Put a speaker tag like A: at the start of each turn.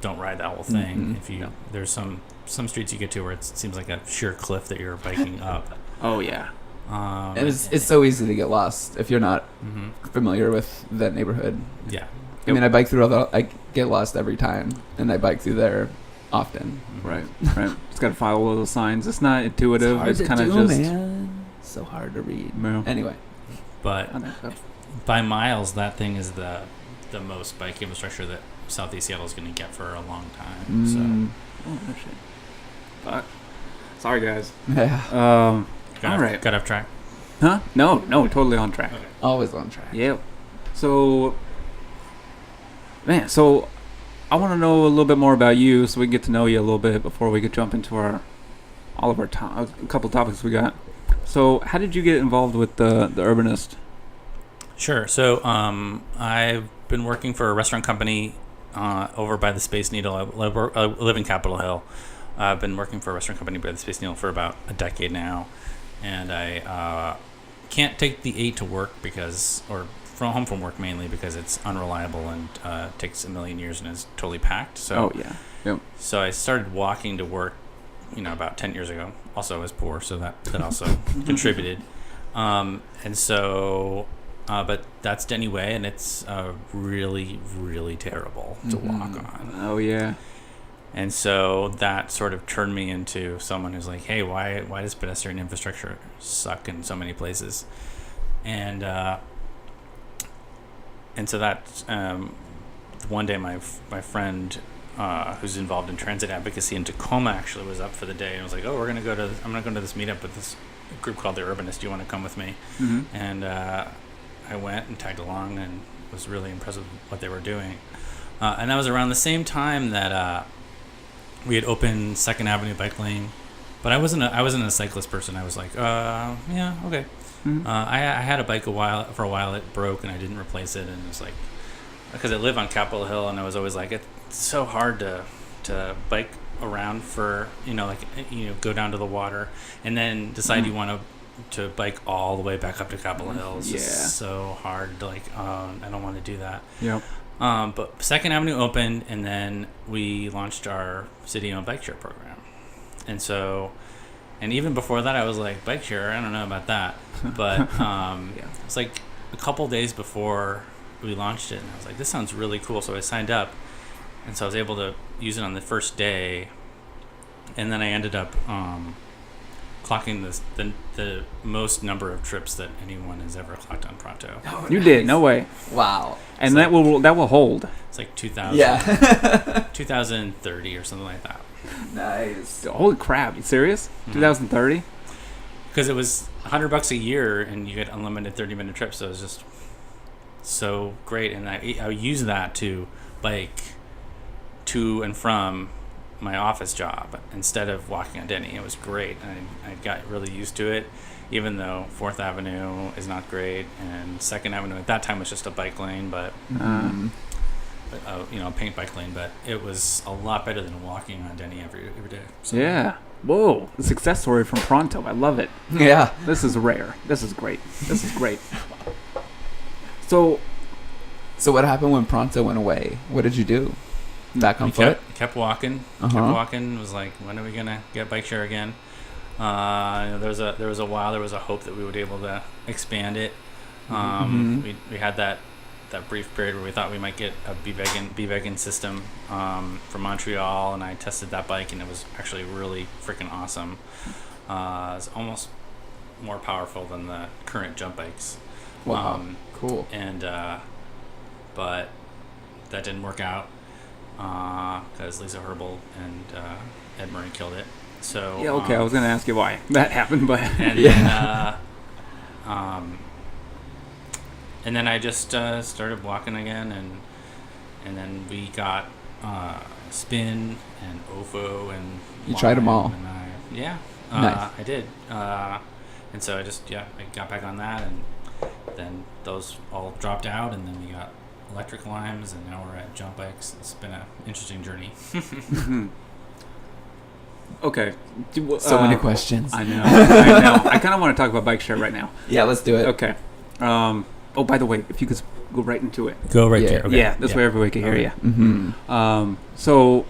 A: don't ride that whole thing.
B: Mm-hmm.
A: If you there's some some streets you get to where it's, it seems like a sheer cliff that you're biking up.
C: Oh yeah.
A: Um,
C: And it's it's so easy to get lost if you're not
A: mhm.
C: familiar with that neighborhood.
A: Yeah.
C: I mean, I bike through all the I get lost every time, and I bike through there often.
A: Mm-hmm.
B: Right, right. It's got to follow all those signs. It's not intuitive. It's, kind of just.
C: man. So hard to read.
B: Yeah.
C: Anyway,
A: But
B: I don't know.
A: by miles, that thing is the the most bike infrastructure that Southeast Seattle is going to get for a long time. So
C: Mm,
B: Oh, no shit. Fuck. Sorry, guys.
C: yeah,
B: Um,
A: got
B: All
A: off,
B: right.
A: got off track.
B: huh? No, no, totally on track.
A: Okay.
C: always on track.
B: Yeah. So, man, so I want to know a little bit more about you, so we can get to know you a little bit before we could jump into our all of our to- a couple topics we got. So, how did you get involved with the the Urbanist?
A: Sure. So um, I've been working for a restaurant company uh, over by the Space Needle. uh, I live, I live in Capitol Hill. I've been working for a restaurant company by the Space Needle for about a decade now, and I uh, can't take the eight to work because, or from home from work mainly because it's unreliable and uh, takes a million years and is totally packed. So
B: Oh yeah.
A: so I started walking to work, you know, about 10 years ago. Also, I was poor, so that, that also contributed. Um, and so, uh, but that's Denny Way, and it's uh, really, really terrible to walk
C: Mhm.
A: on.
B: Oh yeah.
A: And so that sort of turned me into someone who's like, hey, why why does pedestrian infrastructure suck in so many places? And uh, and so that um, one day my f- my friend uh, who's involved in transit advocacy in Tacoma actually was up for the day and was like, oh, we're gonna go to I'm gonna go to this meetup with this group called the Urbanists. Do you want to come with me?
B: hmm
A: and uh, I went and tagged along and was really impressed with what they were doing. Uh, and that was around the same time that uh, we had opened Second Avenue bike lane, but I wasn't a, I wasn't a cyclist person. I was like, uh, yeah, okay.
B: Mhm.
A: Uh, I, I had a bike a while for a while. It broke and I didn't replace it, and it was like because I live on Capitol Hill, and I was always like, it's so hard to to bike around for you know like eh, you know go down to the water and then decide you want to to bike all the way back up to Capitol Hill. It's
B: Yeah.
A: just so hard. Like, oh, I don't want to do that.
B: Yep.
A: Um, but Second Avenue opened, and then we launched our city-owned bike share program. And so, and even before that, I was like, bike share. I don't know about that, but um,
B: Yeah.
A: it's like a couple days before we launched it, and I was like, this sounds really cool. So I signed up, and so I was able to use it on the first day, and then I ended up um, clocking this, the the most number of trips that anyone has ever clocked on Pronto.
B: You did. No way.
C: Wow.
B: And
A: So-
B: that will that will hold.
A: It's like two thousand.
C: Yeah.
A: 2030 or something like that.
C: nice. Mm-hmm.
B: Holy crap! You serious? 2030?
A: Because it was 100 bucks a year and you get unlimited 30 minute trips. So it was just so great. And I, I used that to bike to and from my office job instead of walking on Denny. It was great. And I, I got really used to it, even though Fourth Avenue is not great. And Second Avenue at that time was just a bike lane, but
C: Um,
A: uh, you know, a paint bike lane. But it was a lot better than walking on Denny every, every day. So,
B: Yeah. Whoa. The success story from Pronto. I love it.
C: yeah.
B: This is rare. This is great. This is great. So
C: So what happened when Pronto went away? What did you do? Back on
A: We
C: foot.
A: kept, kept walking. kept
C: Uh-huh.
A: walking. Was like, when are we gonna get bike share again? Uh, you know, there was a there was a while there was a hope that we would be able to expand it. Um,
C: Mhm.
A: we, we had that that brief period where we thought we might get a B vegan B vegan system um, from Montreal, and I tested that bike, and it was actually really freaking awesome. Uh, it's almost more powerful than the current jump bikes.
C: Wow.
A: Um,
C: cool.
A: and uh, but that didn't work out because Lisa Herbal and uh, Ed Murray killed it. So
B: yeah, okay. I
A: um,
B: was gonna ask you why that happened, but
A: and then uh, um, and then I just uh, started walking again, and and then we got uh, spin and ofo and
C: You tried 'em
A: Lime,
C: all.
A: And I, yeah, uh,
C: Nice.
A: I did, uh, and so I just yeah I got back on that, and then those all dropped out, and then we got electric limes, and now we're at jump bikes. It's been an interesting journey.
B: okay. Do-
C: So many
B: uh,
C: questions.
B: I know. I know. I kind of want to talk about bike share right now.
C: yeah, let's do it.
B: Okay. Um, Oh, by the way, if you could s- go right into it.
A: Go right
C: Yeah.
A: there. Okay.
B: Yeah, this way everyone can hear
A: Okay.
B: you.
C: Mm-hmm.
B: Um, so